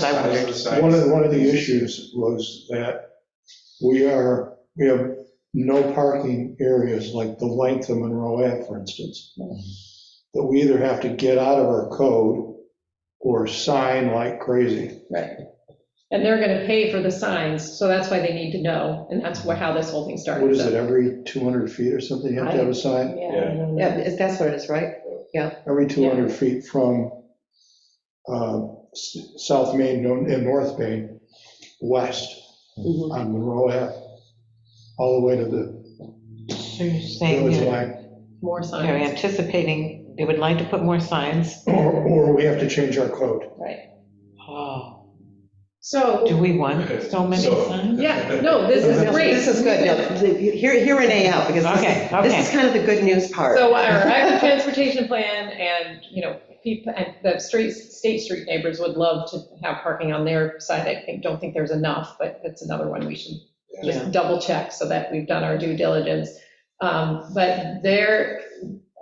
That's what I wondered. One of, one of the issues was that we are, we have no parking areas like the length of Monroe Ave, for instance. That we either have to get out of our code or sign like crazy. Right. And they're going to pay for the signs, so that's why they need to know, and that's where, how this whole thing started. What is so- it, every 200 feet or something, you have to have a sign? Yeah. I don't Yeah, know. is- that's what it is, right? Every 200 feet from um, s- South Main no- and North Main, west So on Monroe Ave, all the way to the you're village saying line. More they're signs. anticipating, they would like to put more signs. Or, or we have to change our code. Right. Oh, do So, we want so many So- signs? yeah, no, this is No, great. This is good, no, the- hear, hear Renee out, because Okay, this is, this is okay. kind of the good news part. So our active transportation plan and, you know, people, and the street, State Street neighbors would love to have parking on their side. I think, don't think there's enough, but it's another one we should Yeah. just double check so that we've done our due diligence. Um, But they're,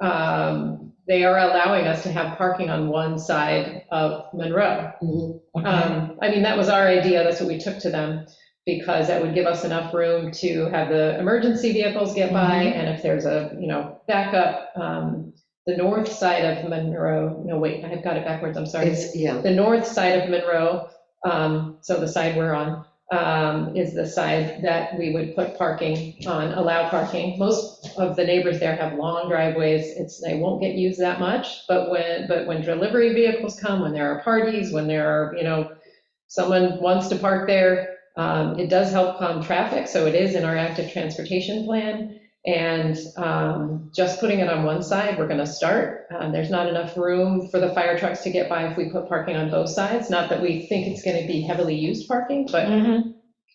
um, they are allowing us to have parking on one side of Monroe. Okay. Um, I mean, that was our idea, that's what we took to them, because that would give us enough room to have the emergency vehicles get by, Mhm. and if there's a, you know, backup, um, the north side of Monroe, no, wait, I have got it backwards, I'm sorry. It's, yeah, The north side of Monroe, um, so the side we're on, um, is the side that we would put parking on, allow parking. Most of the neighbors there have long driveways, it's, they won't get used that much, but when, but when delivery vehicles come, when there are parties, when there are, you know, someone wants to park there, um, it does help calm traffic, so it is in our active transportation plan. And um, just putting it on one side, we're going to start. Uh, There's not enough room for the fire trucks to get by if we put parking on both sides. Not that we think it's going to be heavily used parking, but Mhm.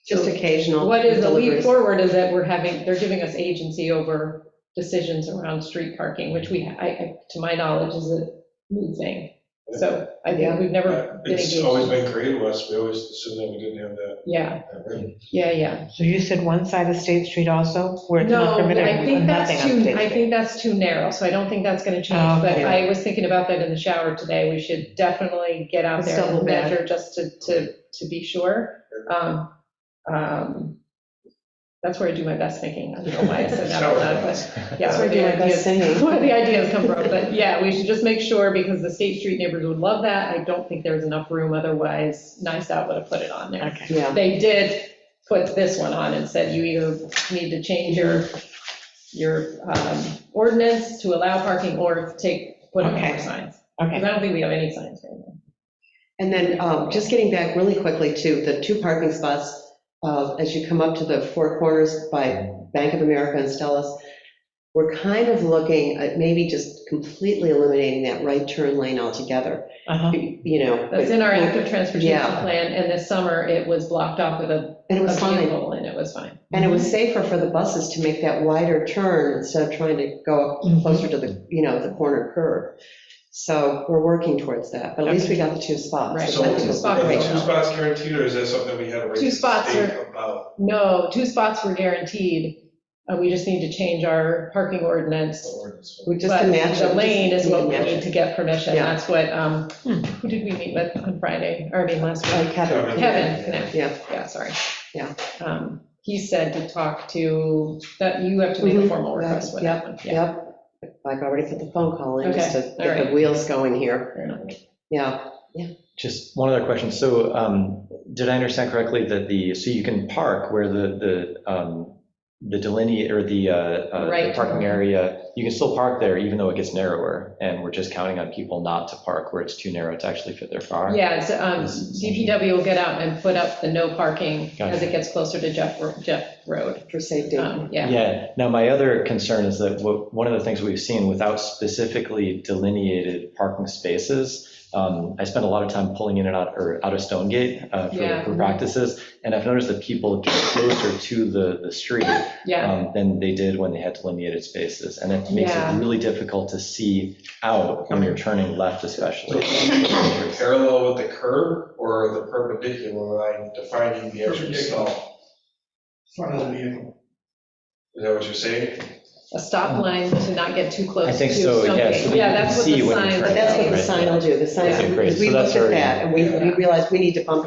just occasional. what is a leap deliveries. forward is that we're having, they're giving us agency over decisions around street parking, which we, I- I, to my knowledge, is a new thing. So I think we've never been It's always engaged. been created to us, we always assumed that we didn't have that. Yeah, that right. yeah, yeah. So you said one side of State Street also, where it's No, not but permitted, I think nothing that's on too, I State Street? think that's too narrow, so I don't think that's gonna change, but Okay. I was thinking about that in the shower today, we should definitely get out Let's there and double back. measure just to, to, to be sure. Um, um, That's where I do my best thinking, I don't know why I said that out loud, but, yeah. That's where I the do my best ideas- singing. Where the ideas come from, but yeah, we should just make sure, because the State Street neighbors would love that, I don't think there's enough room, otherwise, nice out would have put it on there Okay. Yeah, they did put this one on and said you either need to change your, your um, ordinance to allow parking or take, put up more Okay. signs. Because Okay, I don't think we have any signs right now. and then um, just getting back really quickly to the two parking spots, uh, as you come up to the Four Corners by Bank of America and Stellas, we're kind of looking at maybe just completely eliminating that right turn lane altogether, uh-huh, you know. That's in our active transportation Yeah. plan, and this summer it was blocked off with a And it a was fine. vehicle, and it was fine. And it was safer for the buses to make that wider turn instead of trying to go Mm-hmm. Mhm. closer to the, you know, the corner curb. So we're working towards that, but at least we got the two spots. Right. So, But are the two spots right the two ratio. spots guaranteed, or is that something we had to wait? Two to spots state are- About, No, two spots were guaranteed, Uh, we just need to change our parking ordinance. the ordinance. We just to But match it. The lane is what we Yeah. need to get permission, Yeah. that's what, um, Hmm. who did we meet with on Friday, or I mean, last week? Uh, Kevin. Kevin, Knapp. Yeah, Yeah, sorry. Yeah. Um, He said to talk to, that you have to make a Mhm. formal request with that one. Yeah. yep. I've already put the phone call in just to Okay, all get right. the wheels going here. Fair enough. Yeah, Just one other question. So um, did I understand correctly that the, so you can park where the, the, um, the delineate, or the uh, uh, Right. the parking area, you can still park there even though it gets narrower, and we're just counting on people not to park where it's too narrow to actually fit their car? Yeah, it's, um, DPW will get out and put up the no parking as Gotcha. it gets closer to Jeff, Jeff Road. for safety. Um, Yeah, Yeah. Now, my other concern is that what, one of the things we've seen without specifically delineated parking spaces, um, I spend a lot of time pulling in and out, or out of Stonegate Gate uh, Yeah. for- for practices, and I've noticed that people get closer to the, the street yeah. um, than they did when they had delineated spaces. And it makes Yeah. it really difficult to see out when you're turning left So, especially. Parallel with the curb or the perpendicular line defining the actual stall? Front of the vehicle. Is that what you're saying? a stop line to not get too close I to think so, yeah, something. so that you can that's what see the when you're sign. turning. But that's what the Right. sign will do, the sign, Okay, great. we So looked that's at already- that, and we we realized we need to bump